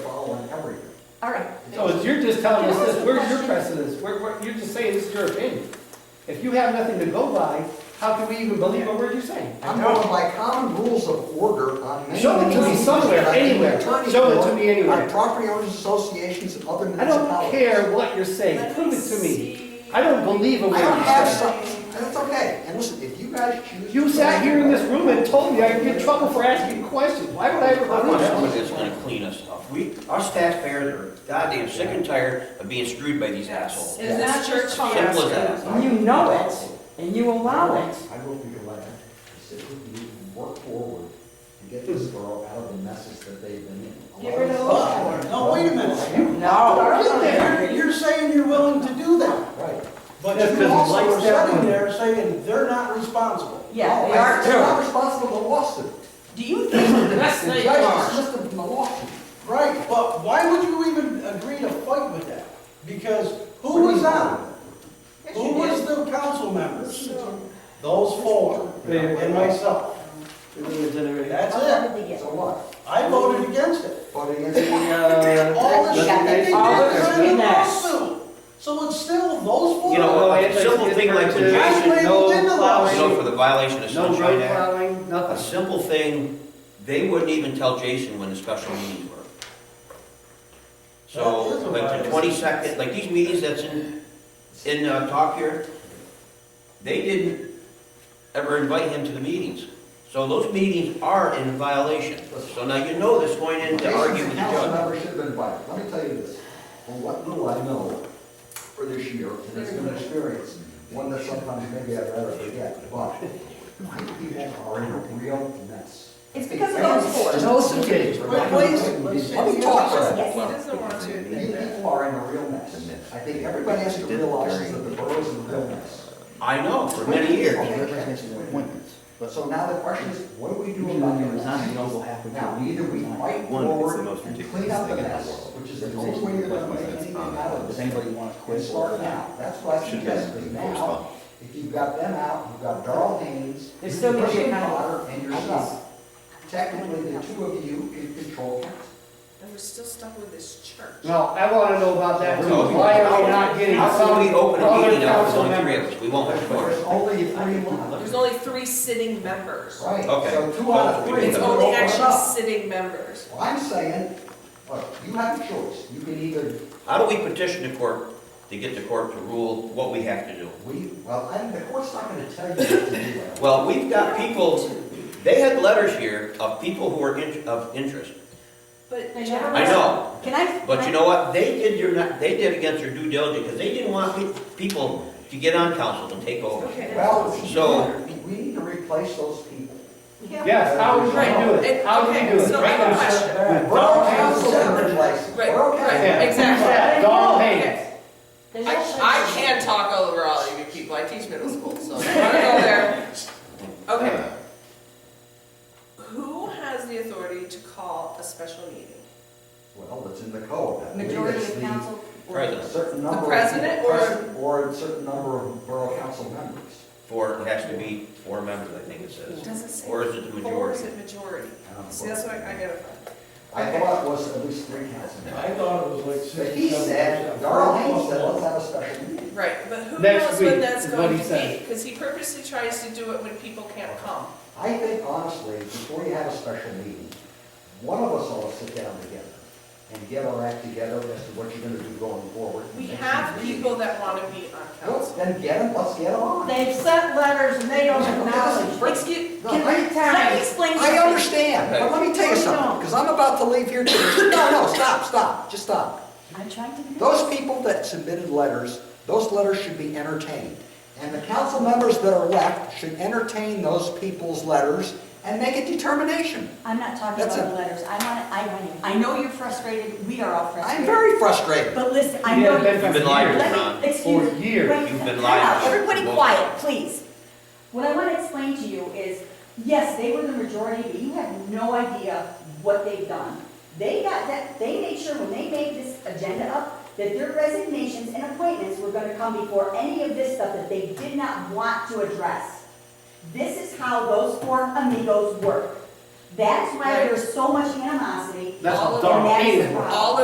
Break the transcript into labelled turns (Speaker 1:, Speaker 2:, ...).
Speaker 1: All right.
Speaker 2: So it's- you're just telling us
Speaker 1: Can I ask
Speaker 2: this,
Speaker 1: a
Speaker 2: where's your
Speaker 1: question?
Speaker 2: precedence? Where, where, you're just saying this is your opinion. If you have nothing to go by, how can we even believe a word you're saying?
Speaker 3: I'm going by common rules of order on many.
Speaker 2: Show it to me
Speaker 3: many
Speaker 2: somewhere,
Speaker 3: things that I think
Speaker 2: anywhere.
Speaker 3: attorneys
Speaker 2: Show it
Speaker 3: know,
Speaker 2: to me anywhere.
Speaker 3: On property owners associations and other
Speaker 2: I don't
Speaker 3: municipalities.
Speaker 2: care what you're saying, prove it to me. I don't believe a word
Speaker 3: I don't
Speaker 2: you're
Speaker 3: have
Speaker 2: saying.
Speaker 3: something, that's okay. And listen, if you guys choose.
Speaker 2: You
Speaker 3: to-
Speaker 2: sat here in this room and told me I'd get in trouble for asking questions, why would I ever
Speaker 4: I want
Speaker 2: believe
Speaker 4: somebody
Speaker 2: that?
Speaker 4: that's gonna clean us up. We, us taxpayers are goddamn sick and tired of being screwed by these assholes.
Speaker 1: Is that your
Speaker 4: Simple as that.
Speaker 1: And you know it, and you allow it.
Speaker 5: I will be elected, sit with you, and work forward, and get this borough out of the messes that they've been in.
Speaker 1: Get rid of the
Speaker 5: Allow
Speaker 1: law.
Speaker 5: us-
Speaker 6: No, wait a minute.
Speaker 1: No.
Speaker 6: You're- You're saying you're willing to do that,
Speaker 5: Right,
Speaker 6: but
Speaker 2: That's
Speaker 6: you
Speaker 2: 'cause
Speaker 6: also
Speaker 2: lights
Speaker 6: are
Speaker 2: down.
Speaker 6: sitting there saying they're not responsible.
Speaker 1: Yeah, they
Speaker 3: They're not
Speaker 1: are too.
Speaker 3: responsible for the lawsuit.
Speaker 1: Do you think that's
Speaker 3: The
Speaker 1: the
Speaker 3: judge
Speaker 1: bar?
Speaker 3: dismissed them from the lawsuit.
Speaker 6: Right, but why would you even agree to fight with that? Because who was on?
Speaker 3: Yes, you
Speaker 6: Who was
Speaker 3: did.
Speaker 6: the council members? Those four,
Speaker 2: They-
Speaker 6: and myself. That's it.
Speaker 3: So what?
Speaker 6: I voted against it.
Speaker 3: Voted against it?
Speaker 6: All the shit that they did
Speaker 1: All the
Speaker 6: was in the
Speaker 1: goodness.
Speaker 6: lawsuit. So it's still those four.
Speaker 4: You know,
Speaker 2: Well,
Speaker 4: a simple thing like the
Speaker 2: I
Speaker 6: That's
Speaker 4: Jason,
Speaker 2: no
Speaker 6: labeled into the
Speaker 2: flowers.
Speaker 6: lawsuit.
Speaker 4: so for the violation of
Speaker 2: No
Speaker 4: Sunshine
Speaker 2: road
Speaker 4: Act,
Speaker 2: plowing,
Speaker 4: a
Speaker 2: nothing.
Speaker 4: simple thing, they wouldn't even tell Jason when the special meetings were.
Speaker 6: That is
Speaker 4: So,
Speaker 6: a
Speaker 4: like the
Speaker 6: violation.
Speaker 4: twenty-second, like these meetings that's in, in uh, talk here, they didn't ever invite him to the meetings. So those meetings are in violation. So now you know this going in to argue with the
Speaker 3: Council
Speaker 4: judge.
Speaker 3: members should have been invited. Let me tell you this, from what little I know for this year, and it's been an experience, one that sometimes maybe I'd rather forget, but my people are in a real mess.
Speaker 1: It's because of those four.
Speaker 2: Those engaged.
Speaker 6: Wait, wait, wait.
Speaker 3: Let me talk for a
Speaker 1: Yes,
Speaker 3: second.
Speaker 1: it is.
Speaker 3: You people are in a real mess. I think everybody has to realize that the borough's in a real mess.
Speaker 4: I know, for many years.
Speaker 3: But so now the question is, what do we do about it? Now, either we fight forward and clean up the mess, which is the only way you're gonna make anything out of this.
Speaker 5: want to
Speaker 3: And start now, that's why I suggest, because now, if you've got them out, you've got Darrell Haynes,
Speaker 1: There's still gonna be a
Speaker 3: Christian
Speaker 1: kind of-
Speaker 3: Potter, and yourself. Technically, the two of you can control council.
Speaker 7: And we're still stuck with this church.
Speaker 2: No, I wanna know about that too, why are we not getting
Speaker 4: How
Speaker 2: some
Speaker 4: can we open a
Speaker 2: other
Speaker 4: meeting now with
Speaker 2: council
Speaker 4: only three
Speaker 2: member?
Speaker 4: of us? We won't have
Speaker 3: But
Speaker 4: four.
Speaker 3: there's only three left.
Speaker 7: There's only three sitting members.
Speaker 3: Right,
Speaker 4: Okay.
Speaker 3: so two out of
Speaker 4: Well,
Speaker 3: three.
Speaker 7: It's
Speaker 3: is
Speaker 7: only
Speaker 3: open
Speaker 7: actually
Speaker 3: up.
Speaker 7: sitting members.
Speaker 3: Well, I'm saying, look, you have a choice, you can either,
Speaker 4: How do we petition the court to get the court to rule what we have to do?
Speaker 3: we, well, and the court's not gonna tell you what to do. Larry.
Speaker 4: Well, we've got people, they had letters here of people who were in- of interest.
Speaker 7: But
Speaker 1: They
Speaker 7: Jack-
Speaker 1: never-
Speaker 4: I know,
Speaker 1: Can I?
Speaker 4: but you know what? They did your, they did against their due diligence because they didn't want pe- people to get on council and take over.
Speaker 7: Okay.
Speaker 3: Well,
Speaker 4: So-
Speaker 3: we need to replace those people.
Speaker 2: Yes, how would you do it?
Speaker 7: Right.
Speaker 2: How would you do
Speaker 7: Okay,
Speaker 2: it?
Speaker 7: so I
Speaker 2: Right
Speaker 7: have a
Speaker 2: now,
Speaker 7: question.
Speaker 3: Borough council can replace them.
Speaker 7: Right,
Speaker 3: Borough council.
Speaker 2: Yeah.
Speaker 7: right, exactly.
Speaker 2: Yeah,
Speaker 1: Oh,
Speaker 2: Darrell Haynes.
Speaker 7: I, I can talk over all of you people, I teach middle school, so if you wanna go there. Okay. Who has the authority to call a special meeting?
Speaker 3: Well, it's in the code. I believe
Speaker 1: Majority
Speaker 3: it's
Speaker 1: of
Speaker 3: the-
Speaker 1: council.
Speaker 3: A
Speaker 4: President,
Speaker 3: certain number. of-
Speaker 7: president or-
Speaker 3: pres- Or a certain number of borough council members.
Speaker 4: four, it has to be four members, I think it
Speaker 7: It
Speaker 4: says.
Speaker 7: Doesn't say.
Speaker 4: Or is it the
Speaker 7: Or is
Speaker 4: majority?
Speaker 7: it majority?
Speaker 3: Um,
Speaker 7: See, that's what I I gotta find.
Speaker 3: I thought it was at least three council members.
Speaker 6: I thought it was like six.
Speaker 3: But he
Speaker 6: seven,
Speaker 3: said,
Speaker 6: percent.
Speaker 3: Darrell Haynes said, let's have a special meeting.
Speaker 7: Right, but who
Speaker 2: Next
Speaker 7: knows
Speaker 2: week
Speaker 7: when that's
Speaker 2: is what
Speaker 7: going
Speaker 2: he
Speaker 7: to be?
Speaker 2: said.
Speaker 7: Because he purposely tries to do it when people can't come.
Speaker 3: I think honestly, before you have a special meeting, one of us ought to sit down together and get our act together as to what you're gonna do going forward.
Speaker 7: We have people that want to be on
Speaker 3: Good,
Speaker 7: council.
Speaker 3: then get them, let's get them on.
Speaker 1: They've sent letters and they don't acknowledge.
Speaker 7: Excuse,
Speaker 3: No,
Speaker 1: Can
Speaker 3: I-
Speaker 1: I, let me explain.
Speaker 3: I
Speaker 1: something.
Speaker 3: understand, but let me tell you something, because I'm about to leave here too. No, no, stop, stop, just stop.
Speaker 1: I'm trying to.
Speaker 3: Those people that submitted letters, those letters should be entertained. And the council members that are left should entertain those people's letters and make a determination.
Speaker 1: I'm not talking
Speaker 3: That's
Speaker 1: about
Speaker 3: it.
Speaker 1: the letters. I want, I, I know you're frustrated. We are all
Speaker 3: I'm
Speaker 1: frustrated.
Speaker 3: very frustrated.
Speaker 1: But listen, I
Speaker 2: You
Speaker 1: know
Speaker 2: haven't
Speaker 1: you.
Speaker 2: been
Speaker 4: You've been
Speaker 2: for
Speaker 4: liars,
Speaker 2: years.
Speaker 4: Ron.
Speaker 1: Let me, excuse.
Speaker 2: For years,
Speaker 1: wait,
Speaker 4: you've been
Speaker 1: time
Speaker 4: lying.
Speaker 1: out. Everybody
Speaker 4: Well-
Speaker 1: quiet, please. What I want to explain to you is, yes, they were the majority, but you have no idea what they've done. They got that, they made sure when they made this agenda up, that their resignations and appointments were going to come before any of this stuff that they did not want to address. This is how those four amigos work. That's why
Speaker 7: Right.
Speaker 1: there's so much animosity.
Speaker 2: That's
Speaker 7: All of
Speaker 2: Darrell
Speaker 1: them.
Speaker 2: Haynes.
Speaker 1: That's
Speaker 7: all of